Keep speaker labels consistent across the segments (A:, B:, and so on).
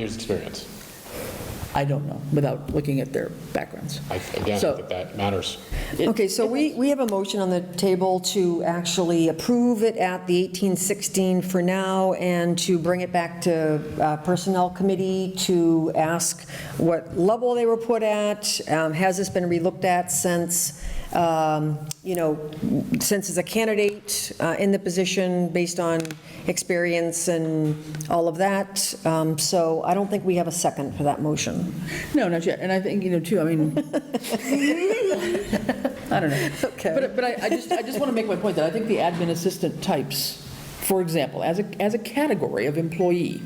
A: years' experience.
B: I don't know, without looking at their backgrounds.
A: I- Again, I
B: So-
A: think that matters.
C: Okay, so we, we have a motion on the table to actually approve it at the 1816 for now and to bring it back to uh, Personnel Committee to ask what level they were put at. Um, Has this been relooked at since, um, you know, since as a candidate uh, in the position based on experience and all of that? Um, So I don't think we have a second for that motion.
B: No, not yet, and I think, you know, too, I mean, I don't know.
C: Okay.
B: But, but I, I just, I just want to make my point that I think the admin assistant types, for example, as a, as a category of employee,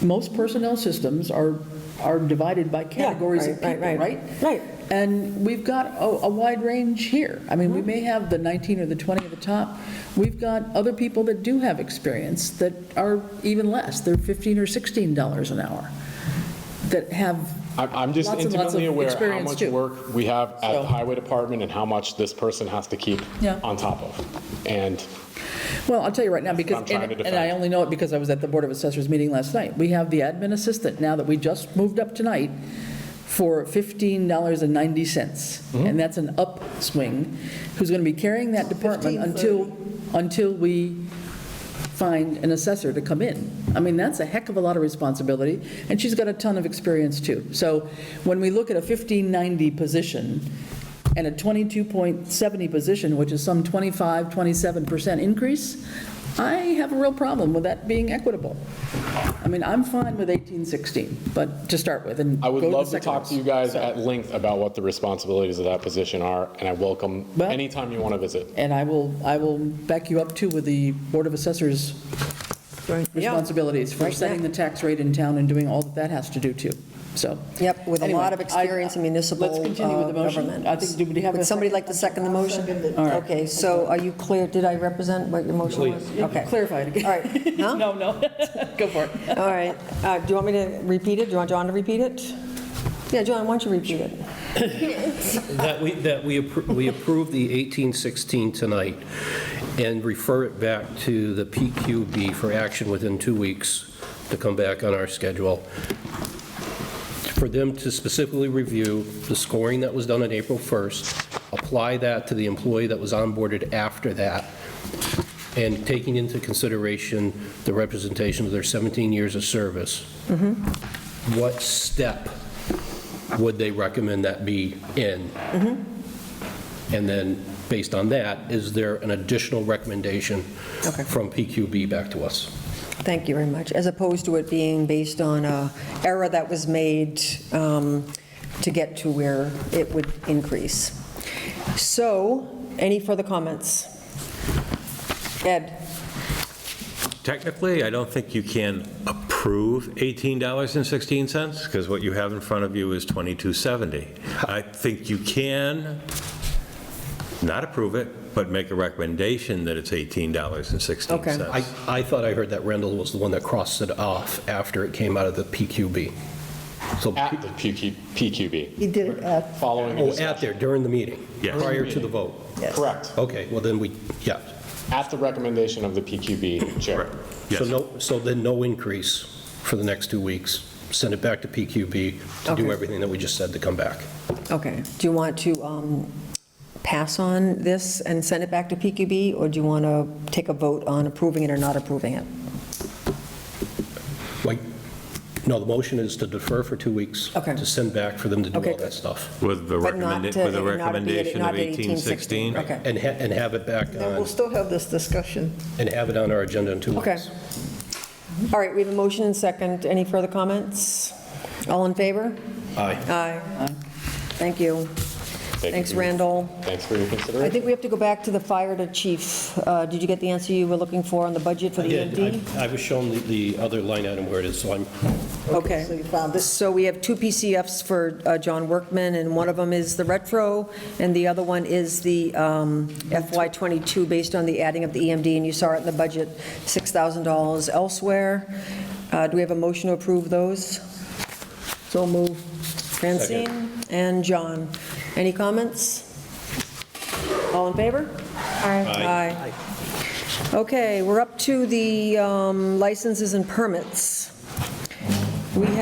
B: most personnel systems are, are divided by categories of
C: right,
B: people,
C: right, right.
B: right?
C: Right.
B: And we've got a, a wide range here. I
C: Mm-hmm.
B: mean, we may have the 19 or the 20 at the top. We've got other people that do have experience that are even less. They're 15 or 16 dollars an hour that have
A: I'm- I'm just
B: Lots and lots
A: intimately
B: of
A: aware how
B: experience,
A: much
B: too.
A: work we have at
B: So-
A: the highway department and how much this person has to keep
B: Yeah.
A: on top of. And
B: Well, I'll tell you right now,
A: what I'm
B: because,
A: trying
B: and
A: to
B: and I
A: defend.
B: only know it because I was at the Board of Assessors meeting last night. We have the admin assistant now that we just moved up tonight for
A: Mm-hmm.
B: $15.90. And that's an upswing, who's going to be carrying that department until, until we find an assessor to come in. I mean, that's a heck of a lot of responsibility, and she's got a ton of experience, too. So when we look at a 1590 position and a 22.70 position, which is some 25, 27% increase, I have a real problem with that being equitable. I mean, I'm fine with 1816, but to start with, and
A: I would
B: go
A: love
B: the
A: to
B: second
A: talk to you
B: one.
A: guys at length about what the responsibilities of that position are, and I welcome
B: Well-
A: anytime you want to visit.
B: And I will, I will back you up, too, with the Board of Assessors responsibilities for
C: Right, yeah.
B: setting the tax rate in town and doing all that that has to do, too. So.
C: Yep, with a
B: Anyway,
C: lot of experience in
B: I-
C: municipal uh,
B: Let's
C: government.
B: continue with the motion. I think, do we have a
C: Would somebody
B: second?
C: like to second the motion? Okay, so are you clear, did I represent what your motion was? Okay,
B: Clarify it again.
C: all right, huh?
B: No, no, go for it.
C: All right, Uh, do you want me to repeat it? Do you want John to repeat it? Yeah, John, why don't you repeat it?
D: That we, that we appro- we approve the 1816 tonight and refer it back to the PQB for action within two weeks to come back on our schedule, for them to specifically review the scoring that was done on April 1st, apply that to the employee that was onboarded after that, and taking into consideration the representation of their 17 years of service. What step would they recommend that be in? And then, based on that, is there an additional recommendation
C: Okay.
D: from PQB back to us?
C: Thank you very much, as opposed to it being based on a error that was made um, to get to where it would increase. So, any further comments? Ed?
E: Technically, I don't think you can approve $18.16, because what you have in front of you is 2270. I think you can not approve it, but make a recommendation that it's $18.16.
C: Okay.
D: I, I thought I heard that Rendell was the one that crossed it off after it came out of the PQB. So,
A: At the PQ PQB,
F: He did it at,
A: following the
D: oh, at
A: discussion.
D: there, during the meeting?
E: Yes.
D: Prior to the vote?
A: Correct.
D: Okay, well then we, yeah.
A: At the recommendation of the PQB chair.
D: So no, so then no increase for the next two weeks. Send it back to PQB to do
C: Okay.
D: everything that we just said to come back.
C: Okay, do you want to um, pass on this and send it back to PQB, or do you want to take a vote on approving it or not approving it?
D: Like, no, the motion is to defer for two weeks.
C: Okay.
D: To send back for them to do
C: Okay,
D: all
C: good.
D: that stuff.
E: With the
C: But not
E: recommenda-
C: to-
E: with
C: not to
E: a
C: be at-
E: recommendation
C: not
E: of
C: to 1816.
E: 1816.
C: Okay.
D: And, ha- and have it back
F: and we'll
D: on,
F: still have this discussion.
D: and have it on our agenda in two weeks.
C: Okay. All right, we have a motion and second. Any further comments? All in favor?
D: Aye.
C: Aye. Thank you.
A: you
C: Thanks,
A: for your-
C: Randall.
A: Thanks for your
C: I
A: consideration.
C: think we have to go back to the fire to chief. Uh, Did you get the answer you were looking for on the budget for
D: I
C: the E
D: did.
C: EMD?
D: I- I was shown the, the other line item where it is, so I'm,
C: Okay.
F: So you found this,
C: So we have two PCFs for uh, John Workman, and one of them is the retro, and the other one is the um, FY22, based on the adding of the EMD, and you saw it in the budget, $6,000 elsewhere. Uh, Do we have a motion to approve those? So move. Francine and John. Any comments? All in favor? Aye. Aye. Okay, we're up to the um, licenses and permits.